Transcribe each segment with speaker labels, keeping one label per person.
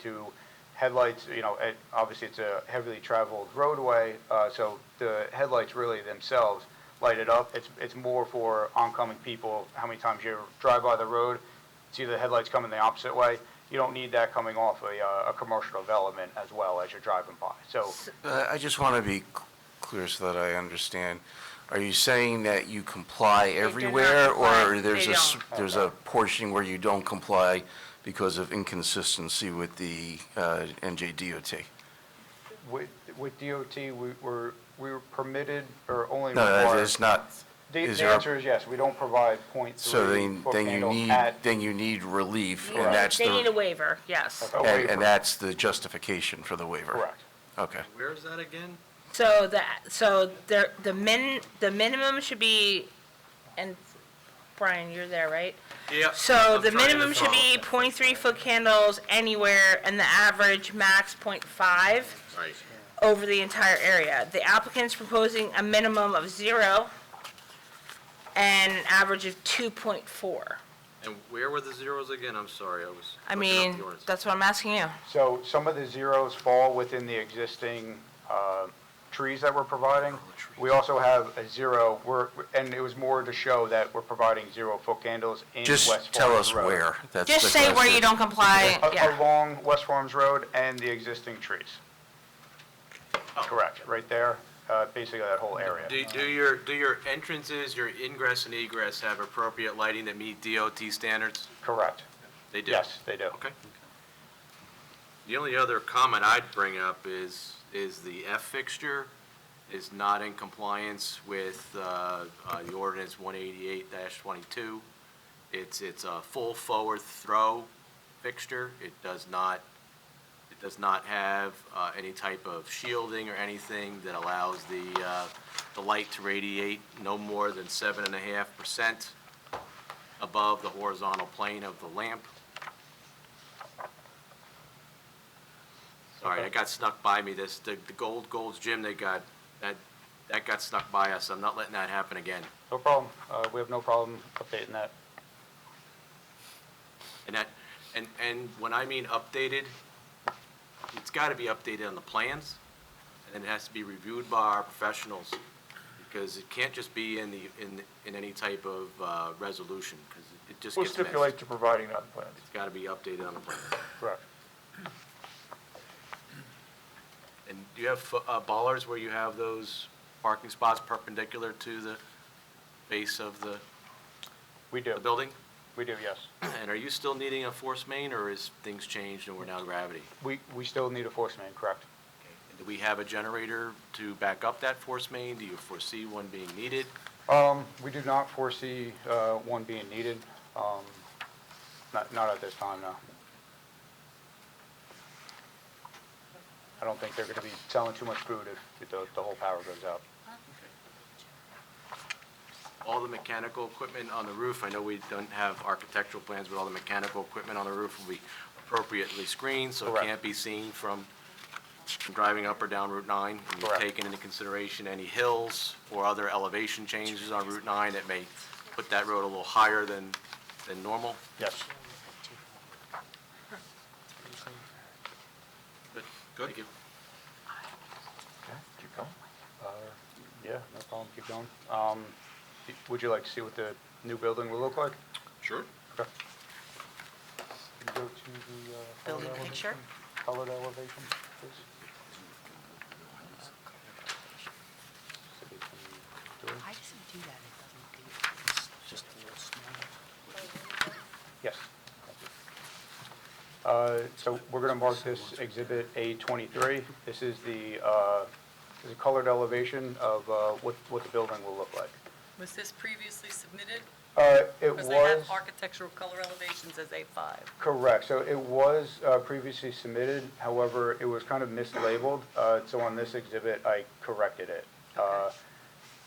Speaker 1: to headlights, you know, it, obviously it's a heavily traveled roadway, uh, so the headlights really themselves light it up. It's, it's more for oncoming people, how many times you drive by the road, see the headlights coming the opposite way. You don't need that coming off a, uh, a commercial development as well as you're driving by. So,
Speaker 2: Uh, I just want to be c- clear so that I understand. Are you saying that you comply
Speaker 3: do not
Speaker 2: everywhere?
Speaker 3: comply.
Speaker 2: Or there's
Speaker 3: They
Speaker 2: a, s-
Speaker 3: don't.
Speaker 2: there's a portion where you don't comply because of inconsistency with the uh, NJDOT?
Speaker 1: with, with DOT, we were, we were permitted or only
Speaker 2: No, that
Speaker 1: required.
Speaker 2: is not,
Speaker 1: The,
Speaker 2: is
Speaker 1: the
Speaker 2: there a-
Speaker 1: answer is yes, we don't provide point
Speaker 2: so
Speaker 1: three
Speaker 2: then,
Speaker 1: foot
Speaker 2: then you
Speaker 1: candles
Speaker 2: need,
Speaker 1: at.
Speaker 2: then you need relief,
Speaker 3: Right.
Speaker 2: and that's
Speaker 3: They need a
Speaker 2: the,
Speaker 3: waiver, yes.
Speaker 1: a
Speaker 2: and-
Speaker 1: waiver.
Speaker 2: and that's the justification for the waiver?
Speaker 1: Correct.
Speaker 2: Okay.
Speaker 4: Where is that again?
Speaker 3: So that, so the, the min, the minimum should be, and Brian, you're there, right?
Speaker 4: Yeah.
Speaker 3: So the minimum should be 0.3 foot candles anywhere and the average max 0.5
Speaker 4: Right.
Speaker 3: over the entire area. The applicant's proposing a minimum of zero and an average of two point four.
Speaker 4: And where were the zeros again? I'm sorry, I was.
Speaker 3: I
Speaker 4: looking up
Speaker 3: mean,
Speaker 4: the ordinance.
Speaker 3: that's what I'm asking you.
Speaker 1: So some of the zeros fall within the existing uh, trees that we're providing. We also have a zero, we're, and it was more to show that we're providing zero foot candles in West Farms
Speaker 2: Just
Speaker 1: Road.
Speaker 2: tell us where. That's
Speaker 3: Just
Speaker 2: the
Speaker 3: say where you
Speaker 2: question.
Speaker 3: don't comply,
Speaker 1: A-
Speaker 3: yeah.
Speaker 1: Along West Farms Road and the existing trees.
Speaker 2: Oh.
Speaker 1: Correct, right there, uh, basically that whole area.
Speaker 4: Do, do your, do your entrances, your ingress and egress have appropriate lighting that meet DOT standards?
Speaker 1: Correct,
Speaker 4: They do?
Speaker 1: yes, they do.
Speaker 4: Okay. The only other comment I'd bring up is, is the F fixture is not in compliance with, uh, uh, the ordinance one eighty-eight twenty-two. It's, it's a full forward throw fixture. It does not, it does not have, uh, any type of shielding or anything that allows the, uh, the light to radiate no more than seven and a half percent above the horizontal plane of the lamp. Sorry, that got snuck by me, this, the, the Gold Gold's Gym, they got, that, that got snuck by us, I'm not letting that happen again.
Speaker 1: No problem, Uh, we have no problem updating that.
Speaker 4: And that, and, and when I mean updated, it's gotta be updated on the plans, and it has to be reviewed by our professionals, because it can't just be in the, in, in any type of, uh, resolution, because it just
Speaker 5: We'll
Speaker 4: gets messed.
Speaker 5: stipulate
Speaker 4: It's
Speaker 5: to providing that plan.
Speaker 4: gotta be updated on the plan.
Speaker 1: Correct.
Speaker 4: And do you have, fo- uh, ballers where you have those parking spots perpendicular to the base of the,
Speaker 1: We
Speaker 4: the
Speaker 1: do,
Speaker 4: building?
Speaker 1: we do, yes.
Speaker 4: And are you still needing a force main, or is things changed and we're now gravity?
Speaker 1: We, we still need a force main, correct?
Speaker 4: And Do we have a generator to back up that force main? Do you foresee one being needed?
Speaker 1: Um, we do not foresee, uh, one being needed, um, not, not at this time, no. I don't think they're gonna be selling too much food if the, the whole power goes out.
Speaker 4: All the mechanical equipment on the roof, I know we don't have architectural plans, but all the mechanical equipment on the roof will be appropriately screened, so it
Speaker 1: Correct.
Speaker 4: can't be seen from from driving up or down Route 9. And you've
Speaker 1: Correct.
Speaker 4: taken into consideration any hills or other elevation changes on Route 9 that may put that road a little higher than, than normal?
Speaker 1: Yes,
Speaker 4: Good. Thank you.
Speaker 5: Keep going.
Speaker 1: Uh, yeah, no problem, keep going. Um, y- would you like to see what the new building will look like?
Speaker 4: Sure.
Speaker 1: Okay. Can you go to the, uh,
Speaker 3: Building
Speaker 1: colored elevation-
Speaker 3: picture?
Speaker 1: Colored elevation, please?
Speaker 6: Why does it do that? It doesn't do it. It's just a little smaller.
Speaker 1: Yes. Uh, So we're going to mark this Exhibit A23. This is the uh, this is a colored elevation of uh, what what the building will look like.
Speaker 7: Was this previously submitted?
Speaker 1: Uh, It
Speaker 7: Because they have
Speaker 1: was,
Speaker 7: architectural color elevations as A5.
Speaker 1: correct, so it was uh, previously submitted, however, it was kind of mislabeled, Uh, so on this exhibit, I corrected it. Uh,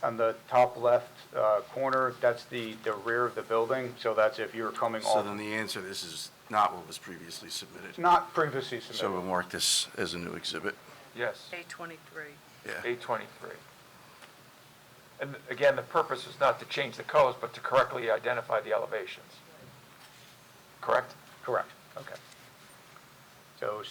Speaker 1: On the top left uh, corner, that's the the rear of the building, so that's if you're coming
Speaker 2: So
Speaker 1: off,
Speaker 2: then the answer, this is not what was previously submitted.
Speaker 1: not previously submitted.
Speaker 2: So we'll mark this as a new exhibit.
Speaker 5: Yes,
Speaker 7: A23.
Speaker 2: Yeah.
Speaker 5: eight twenty-three. And again, the purpose is not to change the colors, but to correctly identify the elevations. Correct?
Speaker 1: Correct.
Speaker 5: Okay.
Speaker 1: So